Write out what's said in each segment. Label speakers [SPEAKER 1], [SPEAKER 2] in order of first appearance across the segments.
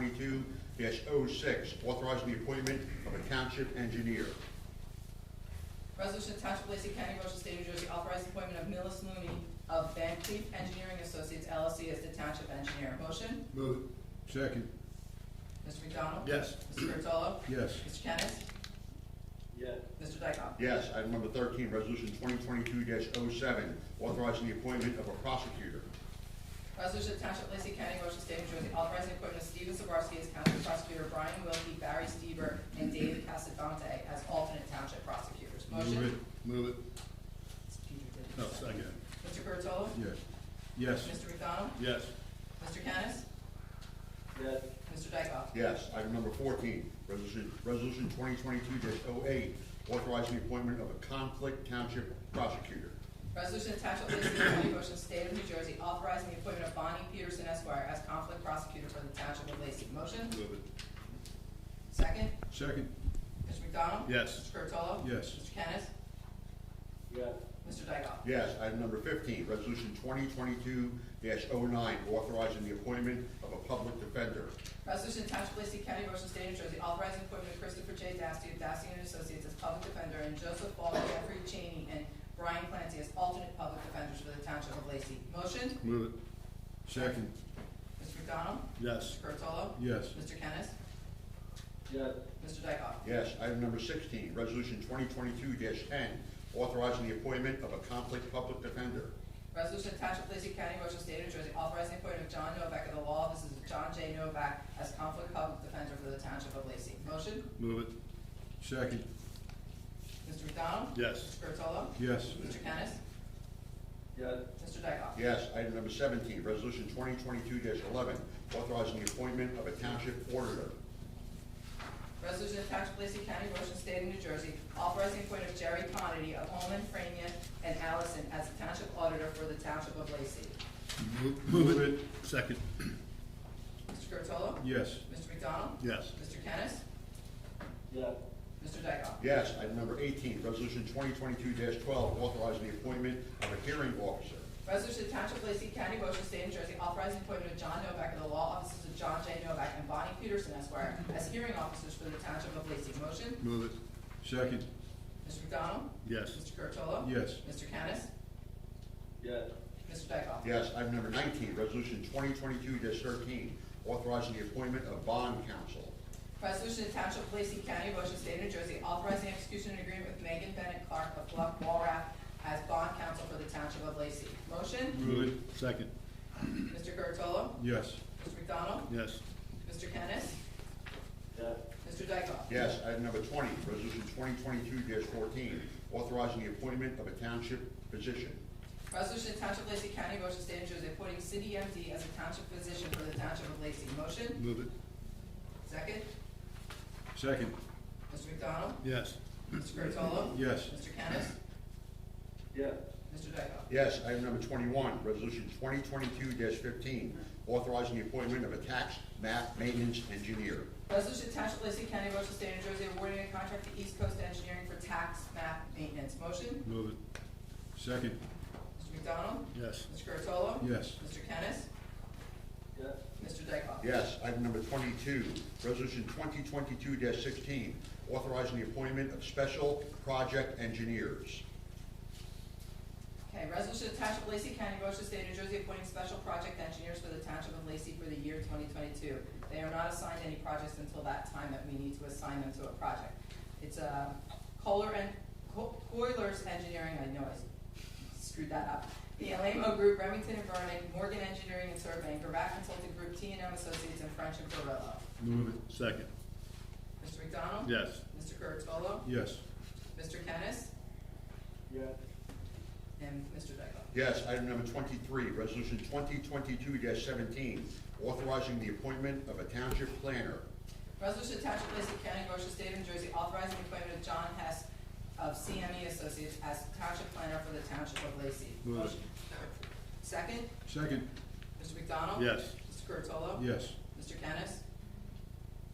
[SPEAKER 1] twenty-two 6 authorizing the appointment of a township engineer.
[SPEAKER 2] Resolution to Township of Lacey County, Ocean State, New Jersey, authorizing appointment of Millis Looney of Van Cleef Engineering Associates LLC as the township engineer. Motion,
[SPEAKER 3] Move it.
[SPEAKER 1] Second.
[SPEAKER 2] Mr. McDonald?
[SPEAKER 3] Yes.
[SPEAKER 2] Mr. Curatolo?
[SPEAKER 1] Yes.
[SPEAKER 2] Mr. Kennis?
[SPEAKER 4] yes,
[SPEAKER 2] Mr. Dykoff?
[SPEAKER 1] Yes, item number thirteen, resolution twenty twenty-two 7 authorizing the appointment of a prosecutor.
[SPEAKER 2] Resolution to Township of Lacey County, Ocean State, New Jersey, authorizing appointment of Steven Sabarski as county prosecutor, Brian Wilkie, Barry Stever, and David Casadante as alternate township prosecutors. Motion?
[SPEAKER 3] Move it.
[SPEAKER 2] Peter did
[SPEAKER 3] No,
[SPEAKER 2] it.
[SPEAKER 3] second.
[SPEAKER 2] Mr. Curatolo?
[SPEAKER 1] Yes. Oh, Yes.
[SPEAKER 2] Mr. McDonald?
[SPEAKER 3] Yes.
[SPEAKER 2] Mr. Kennis?
[SPEAKER 4] yes,
[SPEAKER 2] Mr. Dykoff?
[SPEAKER 1] Yes, item number fourteen, resolution, resolution twenty twenty-two 8 authorizing the appointment of a conflict township prosecutor.
[SPEAKER 2] Resolution to Township of Lacey County, Ocean State of New Jersey, authorizing the appointment of Bonnie Peterson Esquire as conflict prosecutor for the Township of Lacey. Motion?
[SPEAKER 3] Move it.
[SPEAKER 2] Second?
[SPEAKER 1] Second.
[SPEAKER 2] Mr. McDonald?
[SPEAKER 3] Yes.
[SPEAKER 2] Mr. Curatolo?
[SPEAKER 1] Yes.
[SPEAKER 2] Mr. Kennis?
[SPEAKER 4] yes,
[SPEAKER 2] Mr. Dykoff?
[SPEAKER 1] Yes, item number fifteen, resolution twenty twenty-two 9 authorizing the appointment of a public defender.
[SPEAKER 2] Resolution to Township of Lacey County, Ocean State of New Jersey, authorizing appointment of Christopher J. Dasty of Dasty and Associates as public defender and Joseph Ball, Jeffrey Cheney, and Brian Clancy as alternate public defenders for the Township of Lacey. Motion?
[SPEAKER 3] Move it.
[SPEAKER 2] Second. Mr. McDonald?
[SPEAKER 3] Yes.
[SPEAKER 2] Mr. Curatolo?
[SPEAKER 1] Yes.
[SPEAKER 2] Mr. Kennis?
[SPEAKER 4] yes,
[SPEAKER 2] Mr. Dykoff?
[SPEAKER 1] Yes, item number sixteen, resolution twenty twenty-two ten, authorizing the appointment of a conflict public defender.
[SPEAKER 2] Resolution to Township of Lacey County, Ocean State, New Jersey, authorizing the appointment of John Novak of the law. This is John J. Novak as conflict public defender for the Township of Lacey. Motion,
[SPEAKER 3] Move it. Second.
[SPEAKER 2] Mr. McDonald?
[SPEAKER 3] Yes.
[SPEAKER 2] Mr. Curatolo?
[SPEAKER 3] Yes.
[SPEAKER 2] Mr. Kennis?
[SPEAKER 4] yes,
[SPEAKER 2] Mr. Dykoff?
[SPEAKER 1] Yes, item number seventeen, resolution twenty twenty-two eleven, authorizing the appointment of a township auditor.
[SPEAKER 2] Resolution to Township of Lacey County, Ocean State, New Jersey, authorizing the appointment of Jerry Conity of Holman, Frania, and Allison as the Township Auditor for the Township of Lacey.
[SPEAKER 3] Move it. Second.
[SPEAKER 2] Mr. Curatolo?
[SPEAKER 3] Yes.
[SPEAKER 2] Mr. McDonald?
[SPEAKER 3] Yes.
[SPEAKER 2] Mr. Kennis?
[SPEAKER 4] yes,
[SPEAKER 2] Mr. Dykoff?
[SPEAKER 1] Yes, item number eighteen, resolution twenty twenty-two twelve, authorizing the appointment of a hearing officer.
[SPEAKER 2] Resolution to Township of Lacey County, Ocean State, New Jersey, authorizing appointment of John Novak of the law offices of John J. Novak and Bonnie Peterson Esquire as hearing officers for the Township of Lacey. Motion,
[SPEAKER 3] Move it. Second.
[SPEAKER 2] Mr. McDonald?
[SPEAKER 3] Yes.
[SPEAKER 2] Mr. Curatolo?
[SPEAKER 3] Yes.
[SPEAKER 2] Mr. Kennis?
[SPEAKER 4] yes,
[SPEAKER 2] Mr. Dykoff?
[SPEAKER 1] Yes, item number nineteen, resolution twenty twenty-two thirteen, authorizing the appointment of bond counsel.
[SPEAKER 2] Resolution to Township of Lacey County, Ocean State, New Jersey, authorizing execution of an agreement with Megan Bennett Clark of Bluff Walraff as bond counsel for the Township of Lacey. Motion,
[SPEAKER 3] Move it. Second.
[SPEAKER 2] Mr. Curatolo?
[SPEAKER 3] Yes.
[SPEAKER 2] Mr. McDonald?
[SPEAKER 3] Yes.
[SPEAKER 2] Mr. Kennis?
[SPEAKER 4] yes,
[SPEAKER 2] Mr. Dykoff?
[SPEAKER 1] Yes, item number twenty, resolution twenty twenty-two fourteen, authorizing the appointment of a township physician.
[SPEAKER 2] Resolution to Township of Lacey County, Ocean State, New Jersey, appointing city MD as a township physician for the Township of Lacey. Motion?
[SPEAKER 3] Move it.
[SPEAKER 2] Second?
[SPEAKER 3] Second.
[SPEAKER 2] Mr. McDonald?
[SPEAKER 3] Yes.
[SPEAKER 2] Mr. Curatolo?
[SPEAKER 3] Yes.
[SPEAKER 2] Mr. Kennis?
[SPEAKER 4] yes,
[SPEAKER 2] Mr. Dykoff?
[SPEAKER 1] Yes, item number twenty-one, resolution twenty twenty-two fifteen, authorizing the appointment of a tax map maintenance engineer.
[SPEAKER 2] Resolution to Township of Lacey County, Ocean State, New Jersey, awarding a contract to East Coast Engineering for tax map maintenance. Motion?
[SPEAKER 3] Move it. Second.
[SPEAKER 2] Mr. McDonald?
[SPEAKER 3] Yes.
[SPEAKER 2] Mr. Curatolo?
[SPEAKER 3] Yes.
[SPEAKER 2] Mr. Kennis?
[SPEAKER 4] yes,
[SPEAKER 2] Mr. Dykoff?
[SPEAKER 1] Yes, item number twenty-two, resolution twenty twenty-two sixteen, authorizing the appointment of special project engineers.
[SPEAKER 2] Okay, resolution to Township of Lacey County, Ocean State, New Jersey, appointing special project engineers for the Township of Lacey for the year twenty twenty-two. They are not assigned any projects until that time that we need to assign them to a project. It's a Kohler and, Co- Coilers Engineering, I know I screwed that up. The Alamo Group, Remington and Vernon, Morgan Engineering and Surveying, Gravatt Consulting Group, T and M Associates, and French and Perillo.
[SPEAKER 3] Move it. Second.
[SPEAKER 2] Mr. McDonald?
[SPEAKER 3] Yes.
[SPEAKER 2] Mr. Curatolo?
[SPEAKER 3] Yes.
[SPEAKER 2] Mr. Kennis?
[SPEAKER 4] yes,
[SPEAKER 2] And Mr. Dykoff?
[SPEAKER 1] Yes, item number twenty-three, resolution twenty twenty-two seventeen, authorizing the appointment of a township planner.
[SPEAKER 2] Resolution to Township of Lacey County, Ocean State, New Jersey, authorizing the appointment of John Hess of CME Associates as Township Planner for the Township of Lacey.
[SPEAKER 3] Move it.
[SPEAKER 2] Motion. Second,
[SPEAKER 3] Second.
[SPEAKER 2] Mr. McDonald?
[SPEAKER 3] Yes.
[SPEAKER 2] Mr. Curatolo?
[SPEAKER 3] Yes.
[SPEAKER 2] Mr. Kennis?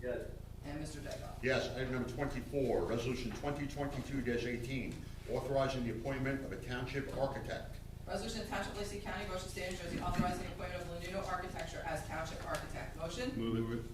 [SPEAKER 4] yes,
[SPEAKER 2] And Mr. Dykoff?
[SPEAKER 1] Yes, item number twenty-four, resolution twenty twenty-two eighteen, authorizing the appointment of a township architect.
[SPEAKER 2] Resolution to Township of Lacey County, Ocean State, New Jersey, authorizing the appointment of Lanudo Architecture as Township Architect. Motion?
[SPEAKER 3] Move it.